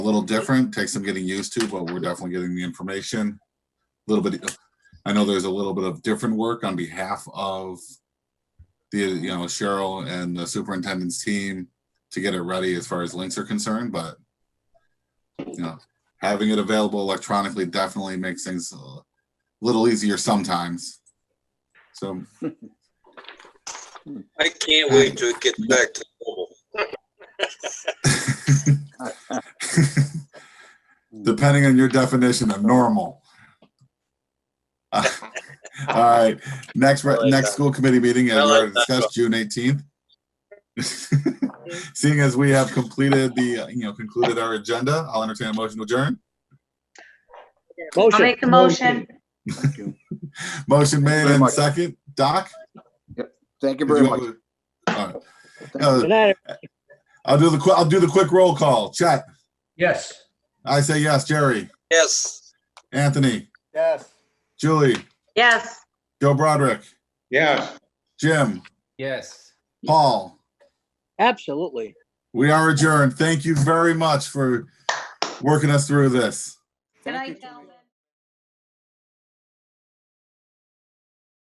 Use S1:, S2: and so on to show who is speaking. S1: a little different, takes some getting used to, but we're definitely getting the information. A Little bit, I know there's a little bit of different work on behalf of the, you know, Cheryl and the superintendent's team to get it ready as far as links are concerned, but you know, having it available electronically definitely makes things a little easier sometimes. So,
S2: I can't wait till it gets back to normal.
S1: depending on your definition of normal. Uh, All right, next, re-
S2: I like
S1: next
S2: that.
S1: school committee meeting, as we
S2: I like
S1: already
S2: that
S1: discussed, June eighteenth. Seeing as we have completed the, uh, you know, concluded our agenda, I'll entertain a motion to adjourn.
S3: Oh,
S4: I'll make the motion.
S3: Thank you.
S1: Motion made
S3: very
S1: and
S3: much.
S1: second, Doc?
S3: Thank you
S1: did
S3: very
S1: you
S3: much.
S1: have a- all right. Uh,
S4: Good night.
S1: I'll do the, qui- I'll do the quick roll call. Chet,
S5: Yes.
S1: I say yes. Jerry,
S2: Yes,
S1: Anthony,
S5: Yes.
S1: Julie,
S4: Yes.
S1: Joe Broderick,
S5: Yes.
S1: Jim,
S5: Yes.
S1: Paul.
S4: Absolutely.
S1: We are adjourned. Thank you very much for working us through this.
S4: Good
S3: Thank you,
S4: night,
S3: Julie.